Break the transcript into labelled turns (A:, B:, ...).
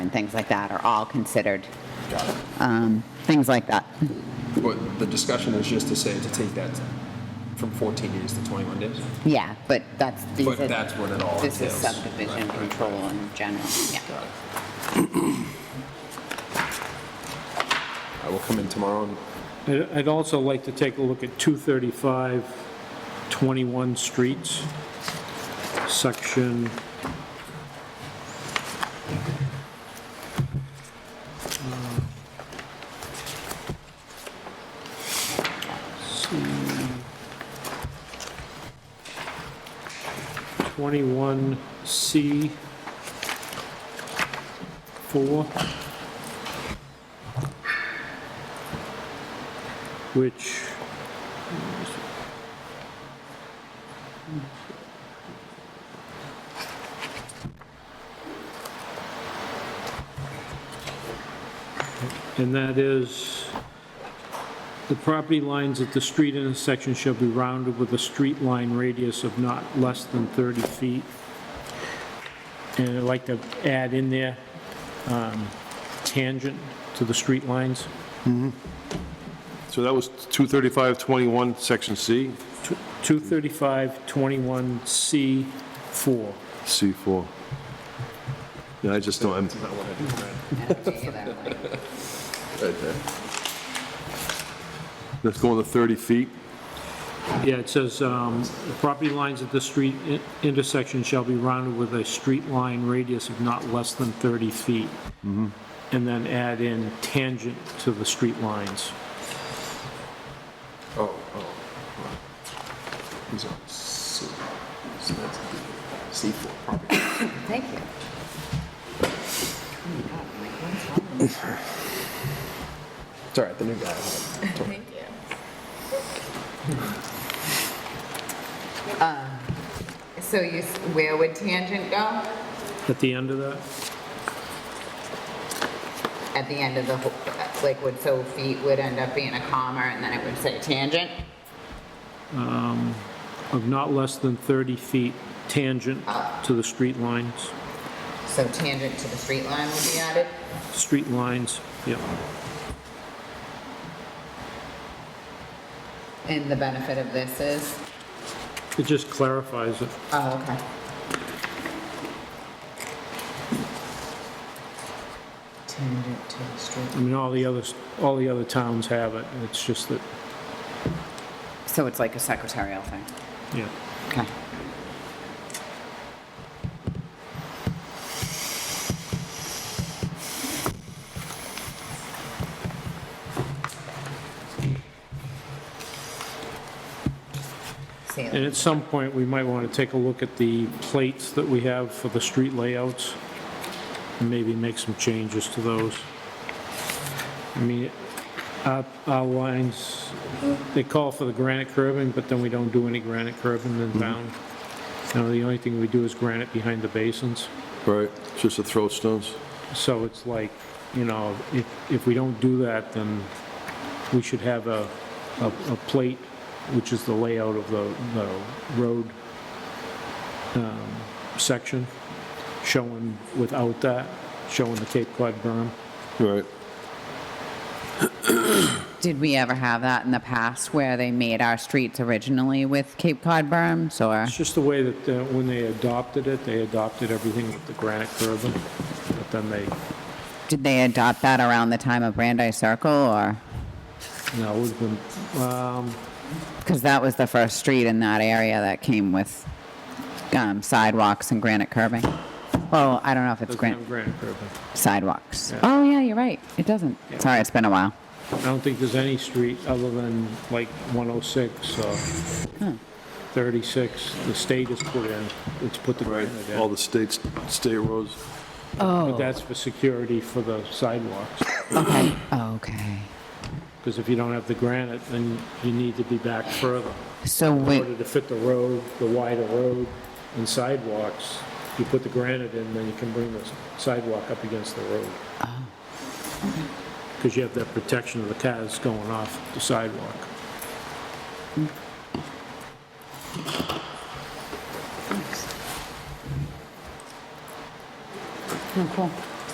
A: and things like that are all considered. Um, Things like that.
B: But the discussion is just to say to take that from 14 days to 21 days.
A: Yeah, but that's. these
B: But
A: are-
B: that's what it all
A: This is
B: entails.
A: subdivision
B: Right, right,
A: control in general, yeah.
B: Got it. I will come in tomorrow and
C: I'd I'd also like to take a look at 235, 21 streets, section... Uh, See. 21C, 4. which and that is the property lines at the street intersection shall be rounded with a street line radius of not less than 30 feet. And I'd like to add in there um, tangent to the street lines.
D: So that was 23521, section C,
C: 235-21C4.
D: C4. Yeah, I just don't, I'm, that's going to 30 feet.
C: Yeah, it says, um, "The property lines at the street i- intersection shall be rounded with a street line radius of not less than 30 feet." And then add in tangent to the street lines.
B: Oh, oh. He's on C. So that's C4 property.
A: Thank you.
B: It's all right, the new guy. Thank
A: Um, So you, s- where would tangent go?
C: At the end of that,
A: At the end of the, wh- like, would, so feet would end up being a comma, and then it would say tangent?
C: of not less than 30 feet tangent to the street lines.
A: So tangent to the street line would be added?
C: Street lines, yep.
A: And the benefit of this is?
C: It just clarifies it.
A: Oh, okay. Tangent to the
C: I
A: street.
C: mean, all the others, all the other towns have it, and it's just that,
A: So it's like a secretarial thing?
C: yeah.
A: Okay. See,
C: And at some point, we might want to take a look at the plates that we have for the street layouts, and maybe make some changes to those. I mean, our, our lines, they call for the granite curbing, but then we don't do any granite curbing in town. Now, the only thing we do is granite behind the basins.
D: Right, it's just the throat stones.
C: So it's like, you know, if, if we don't do that, then we should have a, a, a plate, which is the layout of the, the road, um, section, showing without that, showing the Cape Cod berm.
D: Right.
A: Did we ever have that in the past where they made our streets originally with Cape Cod berms or?
C: It's just the way that, uh, when they adopted it, they adopted everything with the granite curbing, but then they,
A: Did they adopt that around the time of Brandeis Circle or?
C: you know, it would've been, um,
A: Because that was the first street in that area that came with um, sidewalks and granite curbing. Well, I don't know if it's
C: doesn't have
A: granite,
C: granite curbing.
A: sidewalks.
C: Yeah.
A: Oh, yeah, you're right. It doesn't.
C: Yeah.
A: Sorry, it's been a while.
C: I don't think there's any street other than like 106 or 36, uh, the state has put in, it's put the
D: Right,
C: granite
D: all
C: in.
D: the states, state roads.
C: But that's for security for the sidewalks,
A: Okay. Okay.
C: because if you don't have the granite, then you need to be back further.
A: So
C: In
A: wait,
C: order to fit the road, the wider road and sidewalks, you put the granite in, then you can bring the sidewalk up against the road. Because you have that protection of the cars going off the sidewalk.
A: oh, cool.